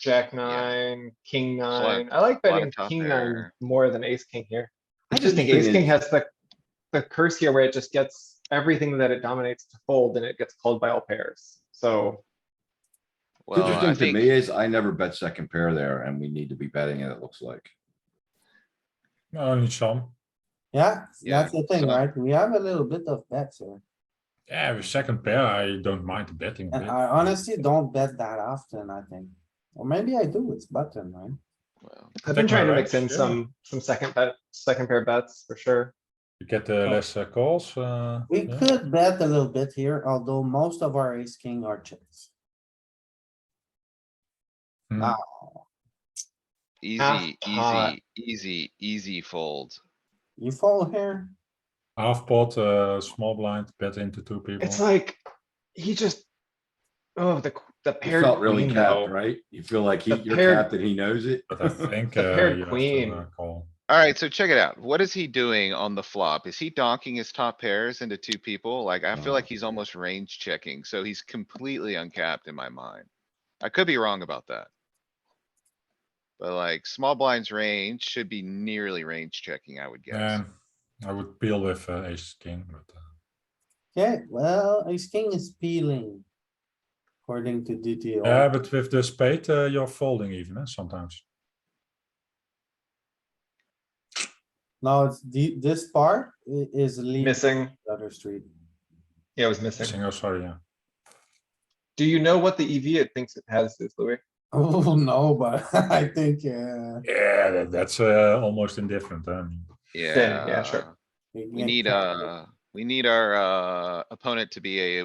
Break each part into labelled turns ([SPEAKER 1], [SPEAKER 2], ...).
[SPEAKER 1] jack nine, king
[SPEAKER 2] lot-
[SPEAKER 1] nine. I like
[SPEAKER 2] a lot of
[SPEAKER 1] betting
[SPEAKER 2] top
[SPEAKER 1] king nine
[SPEAKER 2] pair.
[SPEAKER 1] more than ace king here. I
[SPEAKER 3] It's
[SPEAKER 1] just think ace
[SPEAKER 3] interesting
[SPEAKER 1] king has the, the curse here where it just gets everything that it dominates to fold and it gets called by all pairs. So
[SPEAKER 2] Well, I
[SPEAKER 3] Interesting to
[SPEAKER 2] think,
[SPEAKER 3] me is I never bet second pair there and we need to be betting it, it looks like.
[SPEAKER 4] Only some.
[SPEAKER 5] Yeah,
[SPEAKER 2] Yeah,
[SPEAKER 5] that's the thing,
[SPEAKER 2] so-
[SPEAKER 5] right? We have a little bit of bets here.
[SPEAKER 4] Yeah, with second pair, I don't mind the betting.
[SPEAKER 5] And
[SPEAKER 4] bit.
[SPEAKER 5] I honestly don't bet that often, I think. Or maybe I do, it's button, right?
[SPEAKER 2] well,
[SPEAKER 1] I've been
[SPEAKER 4] Protect my
[SPEAKER 1] trying to
[SPEAKER 4] rights,
[SPEAKER 1] mix in
[SPEAKER 4] yeah.
[SPEAKER 1] some, some second bet, second pair bets for sure.
[SPEAKER 4] You get the less uh, calls, uh.
[SPEAKER 5] Oh. We
[SPEAKER 4] yeah.
[SPEAKER 5] could bet a little bit here, although most of our ace king are chips.
[SPEAKER 4] Hmm.
[SPEAKER 5] Ah,
[SPEAKER 1] Half
[SPEAKER 2] easy,
[SPEAKER 1] pot.
[SPEAKER 2] easy, easy, easy fold.
[SPEAKER 5] You fall here,
[SPEAKER 4] Half pot, uh, small blind, bet into two people.
[SPEAKER 1] It's like, he just, oh, the, qu- the
[SPEAKER 3] You
[SPEAKER 1] paired
[SPEAKER 3] felt really
[SPEAKER 1] queen though.
[SPEAKER 3] capped, right? You feel like he,
[SPEAKER 1] The
[SPEAKER 3] you're
[SPEAKER 1] paired-
[SPEAKER 3] capped and he knows it.
[SPEAKER 4] But I think, uh,
[SPEAKER 1] The paired
[SPEAKER 4] you have
[SPEAKER 1] queen.
[SPEAKER 4] to uh, call.
[SPEAKER 2] Alright, so check it out. What is he doing on the flop? Is he donking his top pairs into two people? Like, I feel like he's almost range checking, so he's completely uncapped in my mind. I could be wrong about that. But like, small blinds range should be nearly range checking, I would guess.
[SPEAKER 4] Yeah, I would peel with uh, ace king, but, uh,
[SPEAKER 5] okay, well, ace king is peeling. According to DTO.
[SPEAKER 4] yeah, but with the spade, uh, you're folding even, eh, sometimes.
[SPEAKER 5] Now, it's the, this part i- is leaving
[SPEAKER 1] Missing,
[SPEAKER 5] the other street.
[SPEAKER 1] yeah, it was missing.
[SPEAKER 4] Single, sorry, yeah.
[SPEAKER 1] Do you know what the EV it thinks it has is, Louis?
[SPEAKER 5] Oh, no, but I think, uh.
[SPEAKER 4] Yeah, that- that's, uh, almost indifferent, I mean.
[SPEAKER 1] Yeah, yeah, sure.
[SPEAKER 2] Yeah, we need, uh, we need our, uh, opponent to be a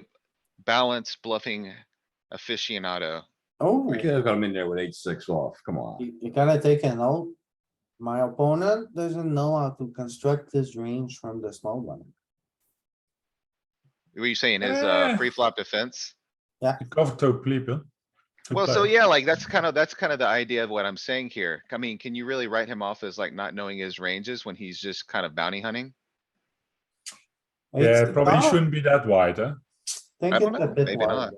[SPEAKER 2] balanced bluffing aficionado.
[SPEAKER 5] Oh.
[SPEAKER 3] We could have got him in there with eight, six off, come on.
[SPEAKER 5] You, you gotta take a note. My opponent doesn't know how to construct his range from the small one.
[SPEAKER 2] Were you saying his, uh,
[SPEAKER 4] Eh.
[SPEAKER 2] pre-flop defense?
[SPEAKER 4] You Cover two people. two
[SPEAKER 2] Well, so
[SPEAKER 4] players.
[SPEAKER 2] yeah, like that's kind of, that's kind of the idea of what I'm saying here. I mean, can you really write him off as like not knowing his ranges when he's just kind of bounty hunting?
[SPEAKER 4] Yeah,
[SPEAKER 5] It's-
[SPEAKER 4] probably
[SPEAKER 5] I
[SPEAKER 4] shouldn't be that wide, eh?
[SPEAKER 5] Think
[SPEAKER 2] I don't
[SPEAKER 5] it's a
[SPEAKER 2] know,
[SPEAKER 5] bit
[SPEAKER 2] maybe
[SPEAKER 5] wide.
[SPEAKER 2] not.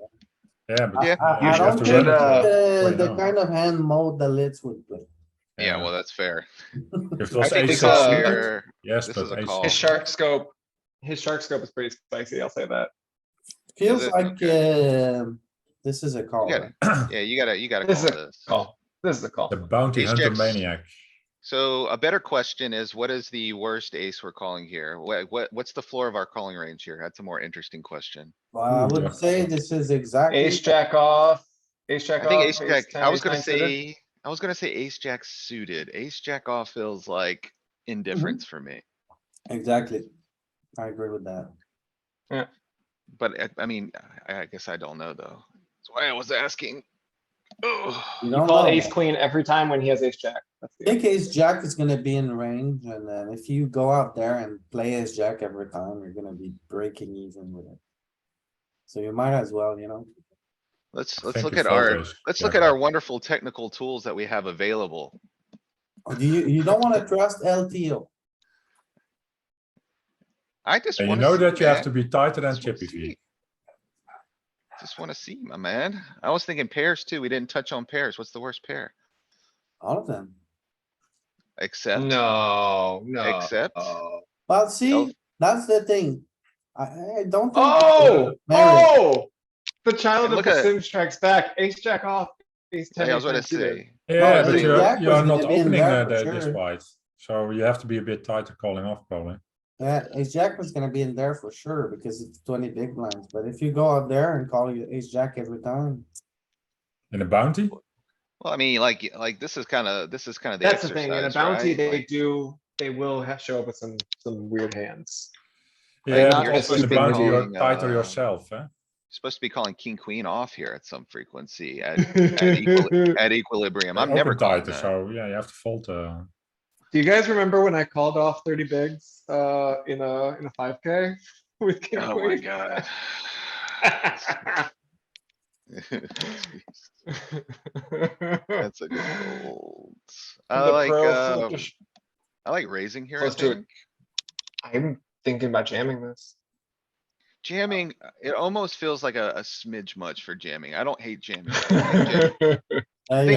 [SPEAKER 4] Yeah, but.
[SPEAKER 2] Yeah.
[SPEAKER 4] you
[SPEAKER 5] I, I
[SPEAKER 4] usually have
[SPEAKER 5] don't
[SPEAKER 4] to run
[SPEAKER 5] think
[SPEAKER 4] it, uh,
[SPEAKER 5] the,
[SPEAKER 4] wide
[SPEAKER 5] the
[SPEAKER 4] now.
[SPEAKER 5] kind of hand mode the lids would play.
[SPEAKER 2] Yeah, well, that's fair.
[SPEAKER 4] If it
[SPEAKER 2] I
[SPEAKER 4] was
[SPEAKER 2] think
[SPEAKER 4] ace
[SPEAKER 1] it's,
[SPEAKER 2] this is
[SPEAKER 1] uh,
[SPEAKER 4] six,
[SPEAKER 2] here,
[SPEAKER 4] yes,
[SPEAKER 2] this
[SPEAKER 4] but
[SPEAKER 2] is a
[SPEAKER 4] ace
[SPEAKER 2] call.
[SPEAKER 1] His
[SPEAKER 4] six-
[SPEAKER 1] shark scope, his shark scope is pretty spicy, I'll say that.
[SPEAKER 5] Feels
[SPEAKER 2] it?
[SPEAKER 5] like, um, this is a call.
[SPEAKER 2] Yeah.
[SPEAKER 5] right?
[SPEAKER 2] yeah, you gotta, you gotta call
[SPEAKER 1] This is
[SPEAKER 2] this.
[SPEAKER 1] Oh, this is the call.
[SPEAKER 4] The bounty
[SPEAKER 2] Ace
[SPEAKER 4] hunter
[SPEAKER 2] jacks.
[SPEAKER 4] maniac.
[SPEAKER 2] So a better question is what is the worst ace we're calling here? What, what, what's the floor of our calling range here? That's a more interesting question.
[SPEAKER 5] Well, I
[SPEAKER 4] Ooh,
[SPEAKER 5] would
[SPEAKER 4] yeah.
[SPEAKER 5] say this is exactly.
[SPEAKER 1] Ace jack off, ace
[SPEAKER 2] I
[SPEAKER 1] jack off.
[SPEAKER 2] think ace jack,
[SPEAKER 1] 10,
[SPEAKER 2] I was
[SPEAKER 1] ace
[SPEAKER 2] gonna
[SPEAKER 1] nine suited.
[SPEAKER 2] say, I was gonna say ace jack suited. Ace jack off feels like
[SPEAKER 1] Mm-hmm.
[SPEAKER 2] indifference for me.
[SPEAKER 5] Exactly. I agree with that.
[SPEAKER 2] But I, I mean, I, I guess I don't know though. That's why I was asking. Ugh.
[SPEAKER 5] You
[SPEAKER 1] You
[SPEAKER 5] don't
[SPEAKER 1] call
[SPEAKER 5] know.
[SPEAKER 1] ace queen every time when he has ace jack. That's the-
[SPEAKER 5] Think ace jack is gonna be in range and then if you go out there and play ace jack every time, you're gonna be breaking even with it. So you might as well, you know,
[SPEAKER 2] Let's,
[SPEAKER 4] I
[SPEAKER 2] let's
[SPEAKER 4] think
[SPEAKER 2] look
[SPEAKER 4] you
[SPEAKER 2] at
[SPEAKER 4] fold
[SPEAKER 2] our,
[SPEAKER 4] ace
[SPEAKER 2] let's look
[SPEAKER 4] jack
[SPEAKER 2] at our
[SPEAKER 4] off.
[SPEAKER 2] wonderful technical tools that we have available.
[SPEAKER 5] Or do you, you don't wanna trust LTO.
[SPEAKER 2] I just
[SPEAKER 4] And
[SPEAKER 2] wanna.
[SPEAKER 4] you know
[SPEAKER 2] see,
[SPEAKER 4] that you have
[SPEAKER 2] man.
[SPEAKER 4] to be tighter than
[SPEAKER 2] Just wanna
[SPEAKER 4] chippy V.
[SPEAKER 2] see. Just wanna see, my man. I was thinking pairs too. We didn't touch on pairs. What's the worst pair?
[SPEAKER 5] All of them.
[SPEAKER 2] Except,
[SPEAKER 1] No, Oh. no.
[SPEAKER 2] except,
[SPEAKER 5] Well,
[SPEAKER 2] No.
[SPEAKER 5] see, that's the thing. I, I don't think.
[SPEAKER 1] Oh,
[SPEAKER 5] Mary,
[SPEAKER 1] oh, the child of
[SPEAKER 2] Look
[SPEAKER 1] the
[SPEAKER 2] at-
[SPEAKER 1] Sims strikes back, ace jack off. ace
[SPEAKER 2] Hey,
[SPEAKER 1] 10,
[SPEAKER 2] I was
[SPEAKER 1] ace nine
[SPEAKER 2] gonna
[SPEAKER 1] suited.
[SPEAKER 2] say,
[SPEAKER 4] Yeah,
[SPEAKER 5] I
[SPEAKER 4] but
[SPEAKER 2] think
[SPEAKER 4] you're,
[SPEAKER 5] Jack
[SPEAKER 4] you're
[SPEAKER 5] was
[SPEAKER 4] not
[SPEAKER 5] gonna be in
[SPEAKER 4] opening
[SPEAKER 5] there
[SPEAKER 4] uh,
[SPEAKER 5] for
[SPEAKER 4] that this
[SPEAKER 5] sure.
[SPEAKER 4] wide, so you have to be a bit tighter calling off probably.
[SPEAKER 5] Yeah, ace jack was gonna be in there for sure because it's twenty big blinds, but if you go out there and call you ace jack every time.
[SPEAKER 4] In a bounty,
[SPEAKER 2] well, I mean, like, like this is kinda, this is kinda the
[SPEAKER 1] That's the thing, in a
[SPEAKER 2] exercise,
[SPEAKER 1] bounty,
[SPEAKER 2] right?
[SPEAKER 1] they
[SPEAKER 2] Like,
[SPEAKER 1] do, they will have, show up with some, some weird hands.
[SPEAKER 4] yeah,
[SPEAKER 1] not
[SPEAKER 4] but
[SPEAKER 1] you're
[SPEAKER 4] also
[SPEAKER 1] supposed
[SPEAKER 4] in a
[SPEAKER 1] to be
[SPEAKER 4] bounty, you're
[SPEAKER 2] calling,
[SPEAKER 4] tighter
[SPEAKER 2] uh,
[SPEAKER 4] yourself, eh?
[SPEAKER 2] Supposed to be calling king, queen off here at some frequency, at, at equili- at equilibrium. I'm
[SPEAKER 4] Open
[SPEAKER 2] never calling
[SPEAKER 4] tighter,
[SPEAKER 2] that.
[SPEAKER 4] so yeah, you have to fold, uh,
[SPEAKER 1] Do you guys remember when I called off thirty bigs, uh, in a, in a five K with king
[SPEAKER 2] Oh my
[SPEAKER 1] queen?
[SPEAKER 2] god.
[SPEAKER 1] The
[SPEAKER 2] That's a good old. I like,
[SPEAKER 1] pro flip
[SPEAKER 2] um,
[SPEAKER 1] just-
[SPEAKER 2] I like raising here, I
[SPEAKER 1] Close to it.
[SPEAKER 2] think.
[SPEAKER 1] I'm thinking about jamming this.
[SPEAKER 2] Jamming, uh, it almost feels like a, a smidge much for jamming. I don't hate jamming. I like jamming.
[SPEAKER 1] Jamming.
[SPEAKER 5] uh,
[SPEAKER 2] Think